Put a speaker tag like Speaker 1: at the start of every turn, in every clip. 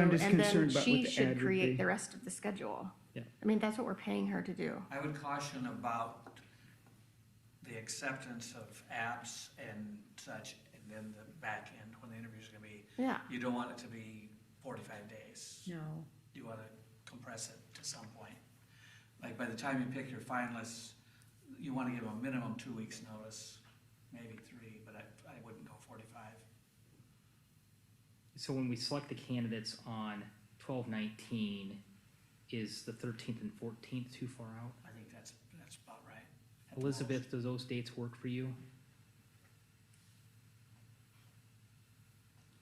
Speaker 1: I'm just
Speaker 2: And then
Speaker 1: concerned about what
Speaker 2: she
Speaker 1: the ad
Speaker 2: should
Speaker 1: would
Speaker 2: create
Speaker 1: be.
Speaker 2: the rest of the schedule.
Speaker 3: Yeah.
Speaker 2: I mean, that's what we're paying her to do.
Speaker 4: I would caution about the acceptance of apps and such, and then the back end, when the interviews are gonna be.
Speaker 2: Yeah.
Speaker 4: You don't want it to be forty-five days.
Speaker 5: No.
Speaker 4: You wanna compress it to some point. Like, by the time you pick your finalists, you wanna give them a minimum two weeks' notice, maybe three, but I, I wouldn't go forty-five.
Speaker 3: So when we select the candidates on twelve nineteen, is the thirteenth and fourteenth too far out?
Speaker 4: I think that's, that's about right. At the most.
Speaker 3: Elizabeth, does those dates work for you?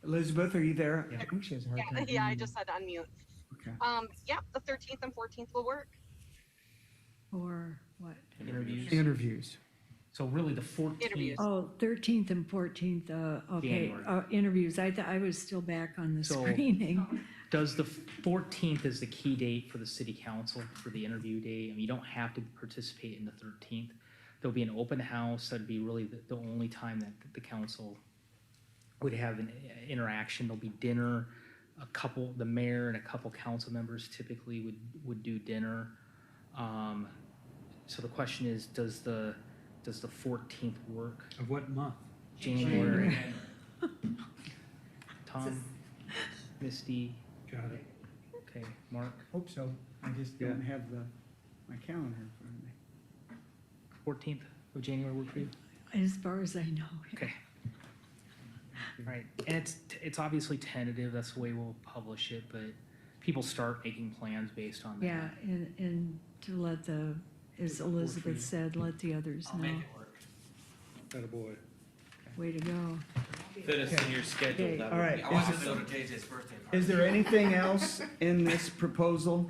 Speaker 1: Elizabeth, are you there?
Speaker 3: Yeah.
Speaker 1: I think she has a hard
Speaker 6: Yeah,
Speaker 1: time.
Speaker 6: yeah, I
Speaker 1: hearing you.
Speaker 6: just had to unmute.
Speaker 1: Okay.
Speaker 6: Um, yeah, the thirteenth and fourteenth will work.
Speaker 5: Or what?
Speaker 3: Interviews?
Speaker 1: Interviews.
Speaker 3: So really the fourteenth,
Speaker 6: Interviews.
Speaker 5: Oh, 13th and 14th, uh, okay,
Speaker 3: January.
Speaker 5: uh, interviews. I, th- I was still back on the
Speaker 3: So-
Speaker 5: screening.
Speaker 3: does the fourteenth is the key date for the city council for the interview day? I mean, you don't have to participate in the thirteenth. There'll be an open house, that'd be really the, the only time that the council would have an uh, interaction. There'll be dinner. A couple, the mayor and a couple council members typically would, would do dinner. Um, so the question is, does the, does the fourteenth work?
Speaker 7: Of what month?
Speaker 3: January. Tom, Misty,
Speaker 7: Got it.
Speaker 3: okay, Mark,
Speaker 1: Hope so. I just don't have the, my calendar in front of me.
Speaker 3: fourteenth of January work for you?
Speaker 5: As far as I know.
Speaker 3: Okay. Right, and it's, it's obviously tentative, that's the way we'll publish it, but people start making plans based on that.
Speaker 5: Yeah, and, and to let the, as Elizabeth said, let the others
Speaker 4: I'll make
Speaker 5: know.
Speaker 4: it work.
Speaker 7: Attaboy.
Speaker 5: Way to go.
Speaker 8: Fit us in your schedule. that
Speaker 1: All
Speaker 8: would
Speaker 1: right.
Speaker 8: be
Speaker 4: I wasn't
Speaker 1: Is
Speaker 4: going to JJ's birthday party.
Speaker 1: Is there anything else in this proposal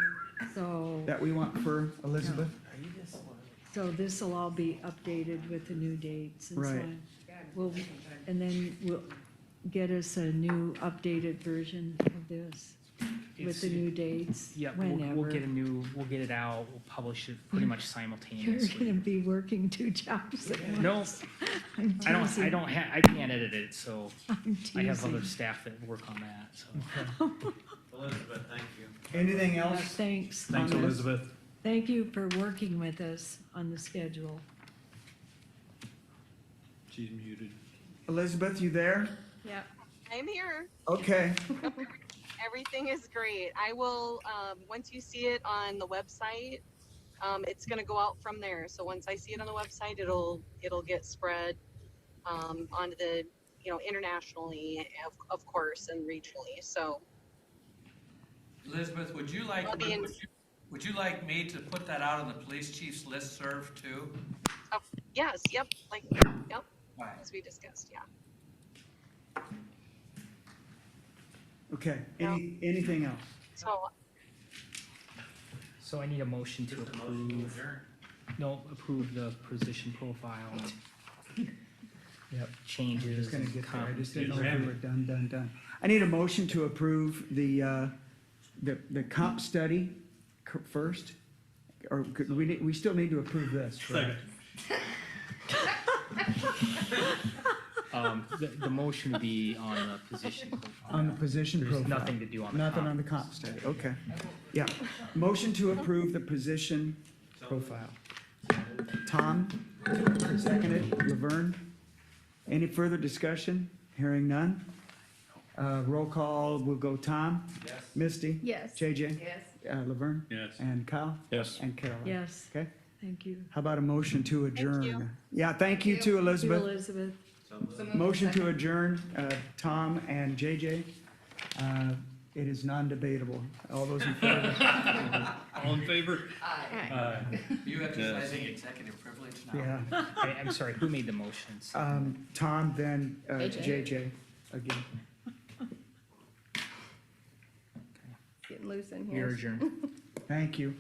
Speaker 5: So,
Speaker 1: that we want for Elizabeth?
Speaker 5: so this will all be updated with the new dates and so
Speaker 1: Right.
Speaker 5: on. We'll, and then we'll get us a new updated version of this with
Speaker 3: It's-
Speaker 5: the new dates.
Speaker 3: Yeah, we'll,
Speaker 5: whenever.
Speaker 3: we'll get a new, we'll get it out, we'll publish it pretty much
Speaker 5: You're gonna
Speaker 3: simultaneously.
Speaker 5: be working two jobs at once.
Speaker 3: No,
Speaker 5: I'm
Speaker 3: I don't, I
Speaker 5: teasing.
Speaker 3: don't ha, I can't edit it, so
Speaker 5: I'm
Speaker 3: I have
Speaker 5: teasing.
Speaker 3: other staff that work on that, so.
Speaker 8: Elizabeth, thank you.
Speaker 1: Anything
Speaker 5: Yeah,
Speaker 1: else?
Speaker 5: Uh, Thanks.
Speaker 7: Thanks,
Speaker 1: Thomas.
Speaker 7: Elizabeth.
Speaker 5: Thank you for working with us on the schedule.
Speaker 7: She's muted.
Speaker 1: Elizabeth, you there?
Speaker 2: Yep.
Speaker 6: I'm here.
Speaker 1: Okay.
Speaker 6: Everything is great. I will, um, once you see it on the website, um, it's gonna go out from there. So once I see it on the website, it'll, it'll get spread, um, onto the, you know, internationally, of, of course, and regionally. So
Speaker 4: Elizabeth, would you like,
Speaker 6: I'll
Speaker 4: would
Speaker 6: be in-
Speaker 4: you, would you like me to put that out on the police chief's listserv too?
Speaker 6: yes, yep, like, yep,
Speaker 4: Why?
Speaker 6: as we discussed, yeah.
Speaker 1: Okay. Any, anything else?
Speaker 6: So
Speaker 3: So I need a motion to approve, no, approve the position profile. Yep.
Speaker 1: I'm
Speaker 3: Changes
Speaker 1: just gonna
Speaker 3: and
Speaker 1: get there. I just didn't
Speaker 3: compensation.
Speaker 1: know if we were done, done, done. I need a motion to approve the, uh, the, the comp study c- first. Or could, we, need- we still need to approve this, right?
Speaker 3: Um, the, the motion would be on the position profile.
Speaker 1: On the position
Speaker 3: There's
Speaker 1: profile.
Speaker 3: nothing to do on the
Speaker 1: Nothing
Speaker 3: comp.
Speaker 1: on the comp study, okay. Yeah. Motion to approve the position profile. Tom, seconded. Laverne. Any further discussion? Hearing none. Uh, roll call, we'll go Tom. Yes. Misty.
Speaker 2: Yes.
Speaker 1: JJ.
Speaker 9: Yes.
Speaker 1: Uh, Laverne.
Speaker 7: Yes.
Speaker 1: And Kyle.
Speaker 7: Yes.
Speaker 1: And Caroline.
Speaker 5: Yes,
Speaker 1: Okay.
Speaker 5: thank you.
Speaker 1: How about a motion to adjourn?
Speaker 6: you.
Speaker 1: Yeah, thank you too,
Speaker 5: You,
Speaker 1: Elizabeth.
Speaker 5: Elizabeth.
Speaker 1: Motion to adjourn, uh, Tom and JJ. Uh, It is non-debatable. All those in favor?
Speaker 7: All in favor?
Speaker 4: You exercising
Speaker 7: Yes.
Speaker 4: executive privilege now?
Speaker 1: Yeah.
Speaker 3: I, I'm sorry, who made the motions?
Speaker 1: Um, Tom, then uh,
Speaker 9: JJ.
Speaker 1: JJ again.
Speaker 9: Getting loose in here.
Speaker 3: You're adjourned.
Speaker 1: Thank you.